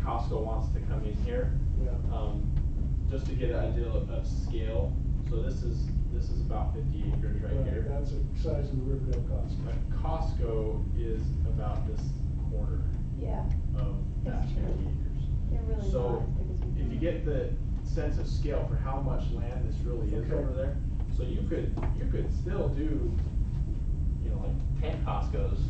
Costco wants to come in here, Yeah. um, just to get an idea of, of scale. So this is, this is about fifty acres right here. That's the size of the Riverdale cost. A Costco is about this quarter Yeah, of that That's true. fifty acres. they're really not So, as big as we. if you thought. get the sense of scale for how much land this really is Okay. over there, so you could, you could still do, you know, like ten Costco's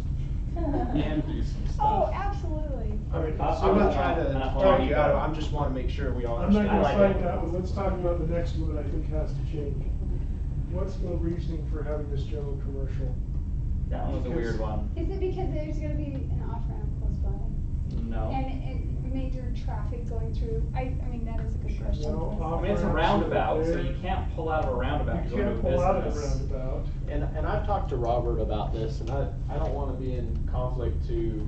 and do some Oh, stuff. absolutely. I mean, Costco, I'm not not- trying to not talk Home you out of, Depot. I'm just wanna make sure we all I'm not understand. gonna like fight it. that one, let's talk about the next one that I think has to change. What's the reasoning for having this general commercial? That one was a weird one. Is it because there's gonna be an off-ramp close by? No. And, and major traffic going through? I, I mean, that is a good question. No, because- I mean, it's a roundabout, so you can't pull out of a roundabout You to go to a can't pull out of the business. roundabout. And, and I've talked to Robert about this, and I, I don't wanna be in conflict to,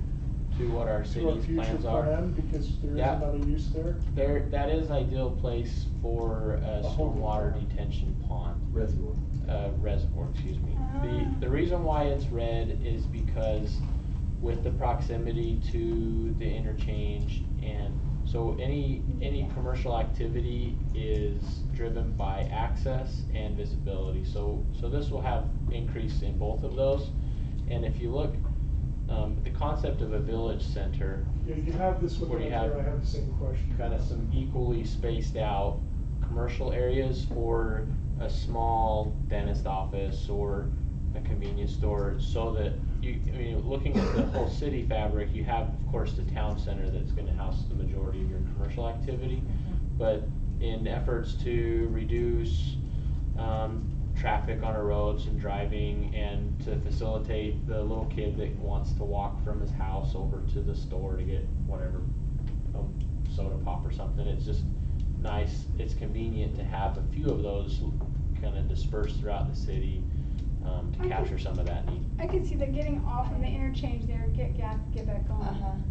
to what our To a city's future plans are. plan, because there is Yeah. another use there. There, that is ideal place for a A holding stormwater pond. detention pond, Reservoir. uh, reservoir, excuse me. Ah. The, the reason why it's red is because with the proximity to the interchange and, so any, any commercial activity is driven by access and visibility. So, so this will have increase in both of those. And if you look, um, the concept of a village center, Yeah, you have this one What right do you have? there, I have the same question. kind of some equally spaced out commercial areas for a small dentist office or a convenience store, so that you, I mean, looking at the whole city fabric, you have, of course, the town center that's gonna house the majority of your commercial activity. But in efforts to reduce, um, traffic on our roads and driving and to facilitate the little kid that wants to walk from his house over to the store to get whatever a soda pop or something. It's just nice, it's convenient to have a few of those kind of dispersed throughout the city um, to Okay. capture some of that need. I can see them getting off of the interchange there, get gas, get back Uh-huh, on.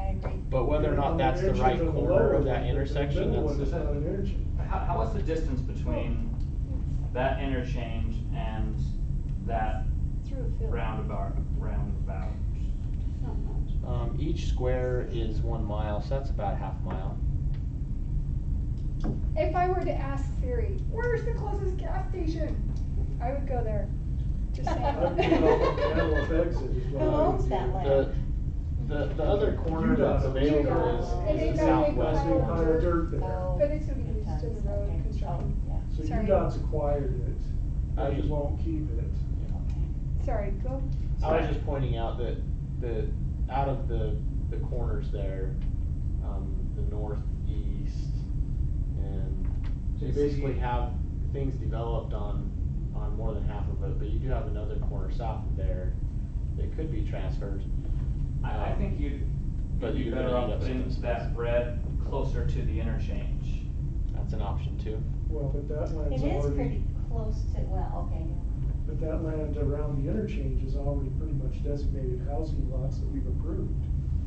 I agree. But whether or not On the that's the interchange right on the corner lower of that one, the intersection, middle that's one is the, not an interchange. How, how was the distance between that interchange and that It's Through a field. roundabout, roundabout? It's not much. um, each square is one mile, so that's about a half mile. If I were to ask Siri, where's the closest gas station? I would go there. Just I'd be on Antelope saying. exit is what I Who owns would do. that The, land? the, the other corner that's UDOT. available And is, they've is the got a big southwest pile of one. Pile of dirt there. Oh, But it's gonna be used sometimes, in the road okay. Oh, construction. Yeah, So Sorry. UDOT's acquired it, I but just- you won't keep it. okay. Sorry, go. I was just pointing out that the, out of the, the corners there, um, the northeast, and you JC. basically have things developed on, on more than half of it, but you do have another corner south of there that could be transferred. I, I think you'd, But you'd be you're gonna better end off up putting spending that red closer to the interchange. That's an option too. Well, but that land's It is already, pretty close to, well, okay, yeah. but that land around the interchange is already pretty much designated housing lots that we've approved,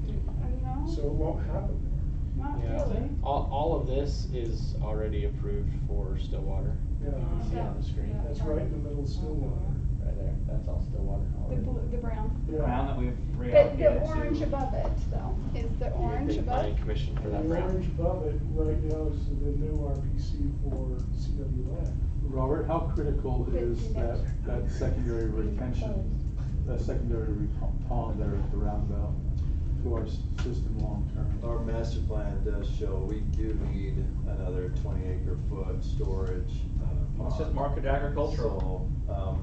Uh, so No, it won't happen there. not Yeah. really. All, all of this is already approved for Stillwater. Yeah, You can see on the screen, that's right in the middle of Stillwater. right there, that's all Stillwater The already. blue, the brown. The Ground that we've But reallocated the to- orange above it though, is the You think orange above? Planning commission for And that the round. orange above it right now is the new RPC for CW land. Robert, how critical But is you that, know- that secondary retention, that secondary re- pond there at the roundabout to our s- system long-term? Our master plan does show we do need another twenty acre foot storage, uh, pond. Let's just market agricultural. So, um,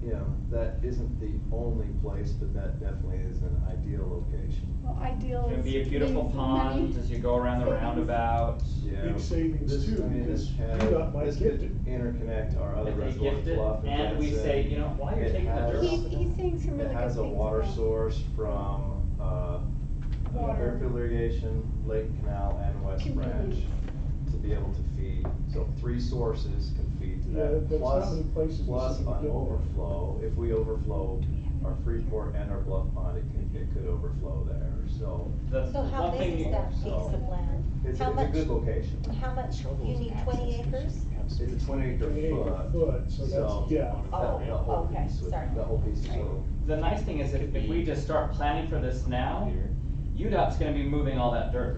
you know, that isn't the only place, but that definitely is an ideal location. Well, ideal It's gonna is. be a beautiful means pond money. as you go around the Savings. roundabout. Yeah. Big savings This- too, I mean, this because had- UDOT might this gift could Interconnect our other And they reservoir gift it, bluff. and we Jensen. say, you know, while you're It taking the dirt has- off He's, he's saying some really It good things. has a water about- source from, uh, Water. Fairfield Irrigation, Lake Canal, and West Branch Community. to be able to feed, so three sources can feed to Yeah, that. there's not Plus, many places in the plus city that an do that. overflow, if we overflow our Freeport and our Bluff Pond, it could, it could overflow there, so the So how one thing big you- is that piece so- of land? it's, it's How a much? good location. How much, you Trouble need is twenty access, 'cause acres? you have It's a twenty acre 20 acre foot. foot, so that's- yeah. that- that whole Oh, okay, piece would- sorry. That whole piece is Right. little. The nice thing is if, if we just start planning for this now, UDOT's gonna be moving all that dirt